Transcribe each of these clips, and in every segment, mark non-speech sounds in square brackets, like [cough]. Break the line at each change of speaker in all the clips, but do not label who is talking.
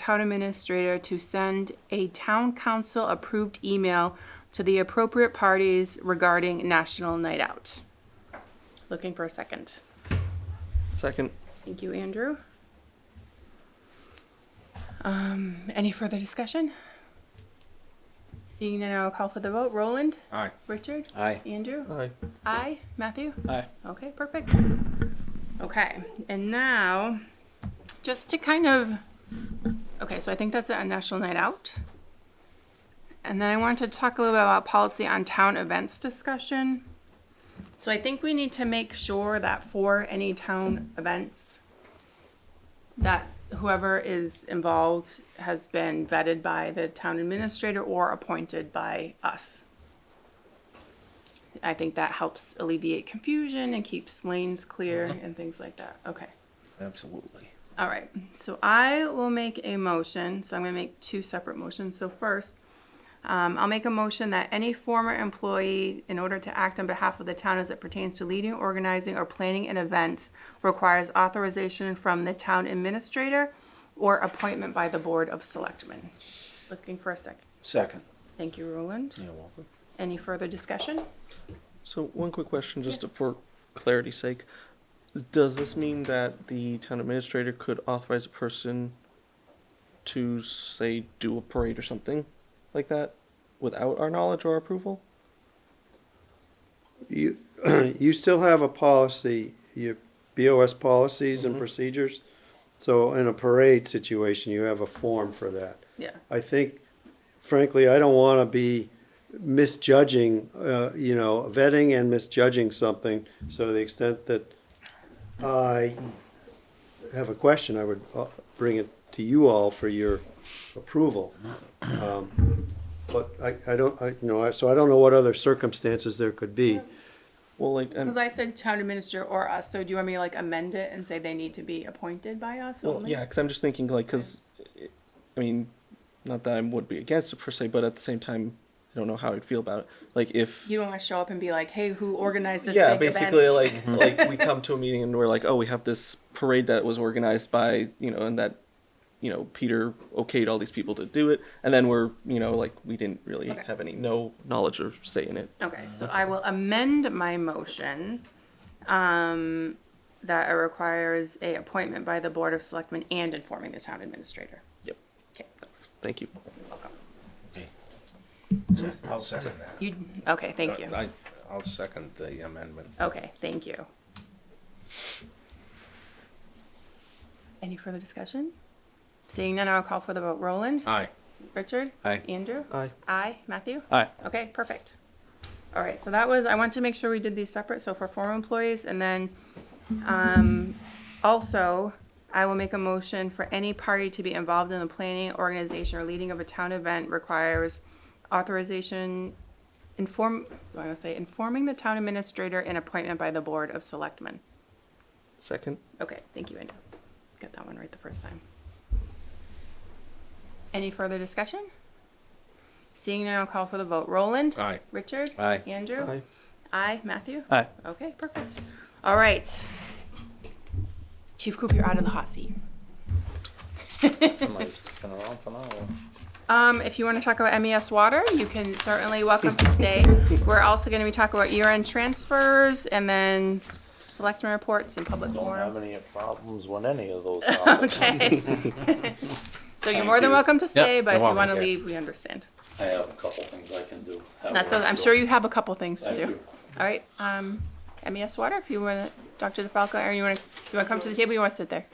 town administrator to send a town council approved email to the appropriate parties regarding National Night Out. Looking for a second.
Second.
Thank you, Andrew. Um, any further discussion? Seeing none, I'll call for the vote. Roland?
Aye.
Richard?
Aye.
Andrew?
Aye.
Aye. Matthew?
Aye.
Okay, perfect. Okay, and now, just to kind of, okay, so I think that's a national night out. And then I wanted to talk a little bit about policy on town events discussion. So I think we need to make sure that for any town events, that whoever is involved has been vetted by the town administrator or appointed by us. I think that helps alleviate confusion and keeps lanes clear and things like that. Okay.
Absolutely.
All right. So I will make a motion. So I'm going to make two separate motions. So first, um, I'll make a motion that any former employee, in order to act on behalf of the town as it pertains to leading, organizing, or planning an event, requires authorization from the town administrator or appointment by the Board of Selectmen. Looking for a sec.
Second.
Thank you, Roland.
You're welcome.
Any further discussion?
So one quick question, just
Yes.
for clarity's sake. Does this mean that the town administrator could authorize a person to say do a parade or something like that without our knowledge or approval?
You, [clears throat] you still have a policy, your BOS policies and procedures. So in a parade situation, you have a form for that.
Yeah.
I think, frankly, I don't want to be misjudging, uh, you know, vetting and misjudging something. So to the extent that I have a question, I would uh, bring it to you all for your approval. Um, But I, I don't, I, you know, I- so I don't know what other circumstances there could be.
Well, like, and,
Because I said town administrator or us, so do you want me to like amend it and say they need to be appointed by us
well,
only?
yeah, because I'm just thinking like, because, I mean, not that I would be against it per se, but at the same time, I don't know how I'd feel about it. Like if
You don't want to show up and be like, hey, who organized this
yeah
big event?
basically like like we come to a meeting and we're like oh we have this parade that was organized by you know and that you know peter okayed all these people to do it and then we're you know like we didn't really
Okay.
have any no knowledge or say in it
Okay, so I will amend my motion, um, that it requires a appointment by the Board of Selectmen and informing the town administrator.
yep
Okay,
thank you
I'll second that.
you, okay, thank you.
I, I'll second the amendment.
Okay, thank you. Any further discussion? Seeing none, I'll call for the vote. Roland?
Aye.
Richard?
Aye.
Andrew?
aye
Aye. Matthew?
Aye.
Okay, perfect. All right, so that was, I want to make sure we did these separate, so for former employees, and then, um, also, I will make a motion for any party to be involved in the planning, organization, or leading of a town event requires authorization, inform, so I'm gonna say, informing the town administrator and appointment by the Board of Selectmen.
second
Okay, thank you, Andrew. Got that one right the first time. Any further discussion? Seeing none, I'll call for the vote. Roland?
Aye.
Richard?
Aye.
Andrew?
aye
Aye. Matthew?
Aye.
Okay, perfect. All right. Chief Coop, you're out of the hot seat.
Am I sticking around for now?
Um, if you want to talk about MES water, you can certainly welcome to stay. We're also going to be talking about year-end transfers and then selectmen reports and public
Don't have
forum.
any problems with any of those [laughs] topics.
Okay. So you're more than welcome to stay, but if you
welcome,
want to
yeah.
leave, we understand.
I have a couple things I can do. Have
That's,
a
okay. I'm
rest
sure
of-
you have a couple things to
Thank
do.
you.
All right, um, MES water, if you want to, Dr. DeFalco, Aaron, you want to, you want to come to the table, you want to sit there?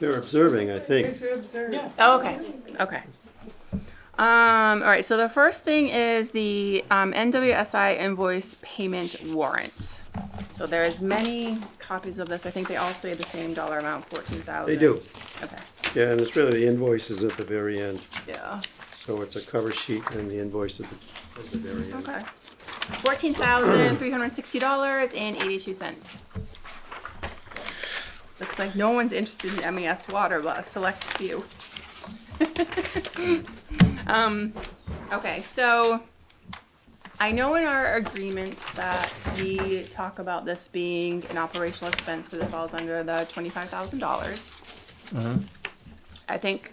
They're observing, I think.
Oh, okay, okay. Um, all right, so the first thing is the, um, NWSI invoice payment warrant. So there's many copies of this, I think they all say the same dollar amount, fourteen thousand.
They do.
Okay,
Yeah, and it's really the invoices at the very end.
yeah,
So it's a cover sheet and the invoice at the, at the very end.
okay. Fourteen thousand, three hundred and sixty dollars and eighty-two cents. Looks like no one's interested in MES water, but a select few. [laughs] Um, okay, so I know in our agreement that we talk about this being an operational expense because it falls under the twenty-five thousand dollars. I think